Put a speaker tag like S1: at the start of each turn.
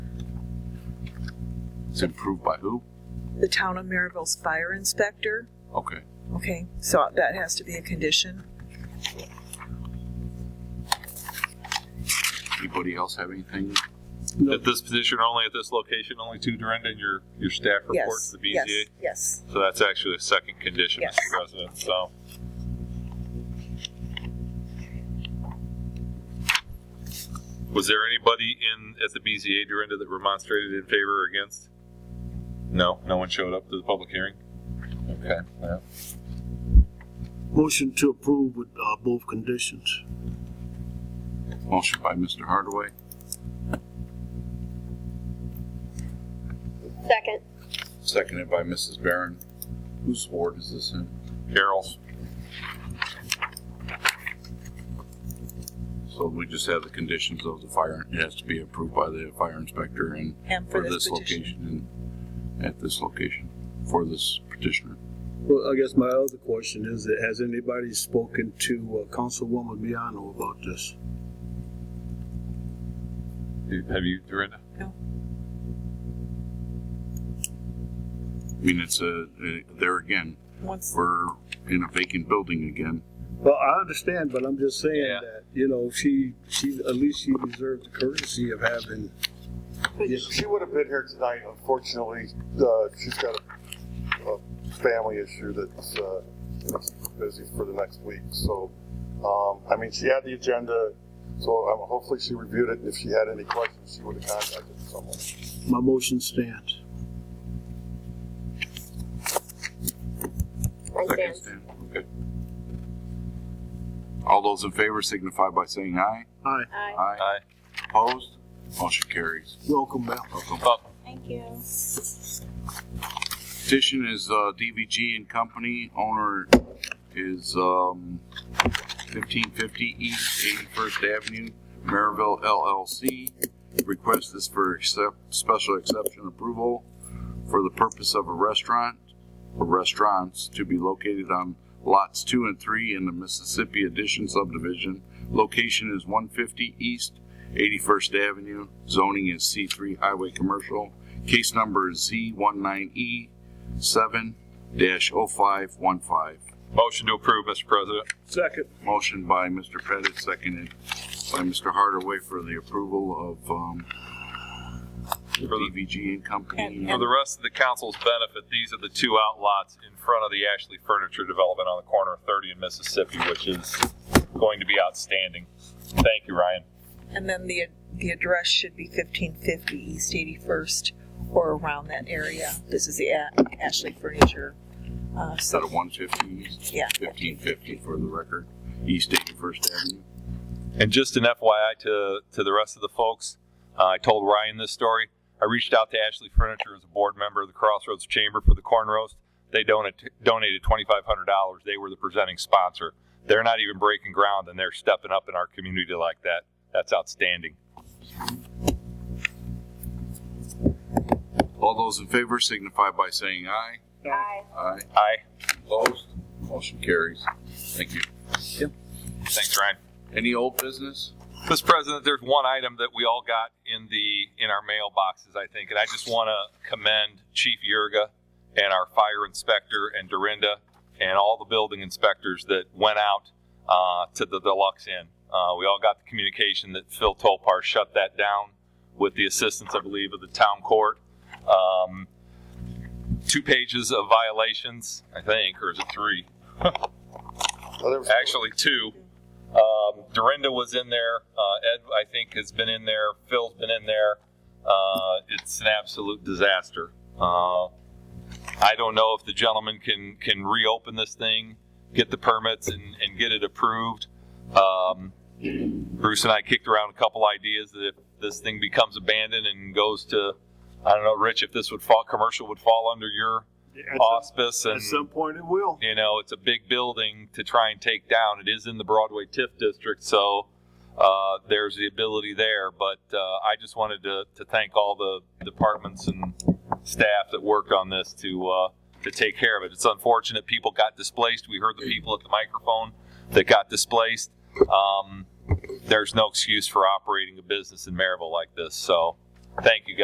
S1: It's improved by who?
S2: the town of Maryville's fire inspector.
S1: Okay.
S2: Okay, so that has to be a condition.
S1: Anybody else have anything?
S3: At this position, only at this location, only two, Dorinda, and your, your staff report
S2: Yes,
S3: to the BZA.
S2: yes, yes.
S3: So that's actually a second condition,
S2: Yes.
S3: Mr. President. So was there anybody in at the BZA Dorinda that remonstrated in favor or against? No, no one showed up to the public hearing. Okay. yeah.
S4: Motion to approve with uh, both conditions.
S1: Motion by Mr. Hardaway,
S5: Second.
S1: seconded by Mrs. Barron. Whose ward is this in?
S3: Carol,
S1: So we just have the conditions of the fire, it has to be approved by the fire inspector and
S2: And
S1: for
S2: for
S1: this
S2: petition.
S1: location and at this location for this petitioner.
S4: Well, I guess my other question is, that has anybody spoken to uh, Councilwoman Miano about this?
S3: you- have you, Dorinda?
S1: I mean, it's a, there again,
S2: Once,
S1: we're in a vacant building again.
S4: Well, I understand, but I'm just saying
S3: Yeah.
S4: that, you know, she, she, at least she deserved the courtesy of having, Yeah.
S6: She would have been here tonight, unfortunately, uh, she's got a, a family issue that's, uh, busy for the next week, so, um, I mean, she had the agenda, so um, hopefully she reviewed it, and if she had any questions, she would have contacted someone.
S4: my motion stands.
S5: I
S1: Second
S5: stand.
S1: stand. Okay. All those in favor signify by saying aye.
S4: Aye,
S5: Aye.
S3: Aye.
S1: Opposed? Motion carries.
S4: welcome back.
S3: Up.
S5: Thank you.
S1: Petition is uh, DVG and Company. Owner is um, 1550 East 81st Avenue, Maryville LLC. Request is for accept, special exception approval for the purpose of a restaurant or restaurants to be located on lots 2 and 3 in the Mississippi Addition subdivision. Location is 150 East 81st Avenue. Zoning is C3 Highway Commercial. Case number is Z19E seven dash oh five one five.
S3: Motion to approve, Mr. President.
S4: Second.
S1: Motion by Mr. Pettit, seconded by Mr. Hardaway for the approval of, um, DVG and Company.
S3: For the rest of the council's benefit, these are the two outlots in front of the Ashley Furniture Development on the corner of 30 and Mississippi, which is going to be outstanding. Thank you, Ryan.
S2: and then the, the address should be fifteen fifty East Eighty-first or around that area. This is the A- Ashley Furniture. Uh,
S1: Instead
S2: so,
S1: of one fifty,
S2: yeah,
S1: fifteen fifty for the record, East Eighty First Avenue.
S3: And just an FYI to, to the rest of the folks, uh, I told Ryan this story. I reached out to Ashley Furniture as a board member of the Crossroads Chamber for the corn roast. They donated donated twenty five hundred dollars. They were the presenting sponsor. They're not even breaking ground, and they're stepping up in our community like that. That's outstanding.
S1: All those in favor signify by saying aye.
S5: Aye.
S1: Aye.
S3: Aye.
S1: Opposed? Motion carries. Thank you.
S3: Thanks, Ryan.
S1: Any old business?
S3: Mr. President, there's one item that we all got in the in our mailboxes, I think, and I just want to commend Chief Yurga and our fire inspector and Dorinda and all the building inspectors that went out uh, to the Deluxe Inn. Uh, we all got the communication that Phil Tolpar shut that down with the assistance, I believe, of the town court. Um, two pages of violations, I think, or is it three?
S6: Now, there was-
S3: actually two. Um, Dorinda was in there. Uh, Ed, I think, has been in there. Phil's been in there. Uh, it's an absolute disaster. Uh, I don't know if the gentleman can can reopen this thing, get the permits, and, and get it approved. Um, Bruce and I kicked around a couple ideas that if this thing becomes abandoned and goes to, I don't know, Rich, if this would fall commercial would fall under your
S4: At some-
S3: auspice and
S4: At some point it will.
S3: you know, it's a big building to try and take down. It is in the Broadway TIF district, so uh, there's the ability there. But uh, I just wanted to, to thank all the departments and staff that worked on this to uh, to take care of it. It's unfortunate people got displaced. We heard the people at the microphone that got displaced. Um, there's no excuse for operating a business in Maryville like this. So, thank you guys.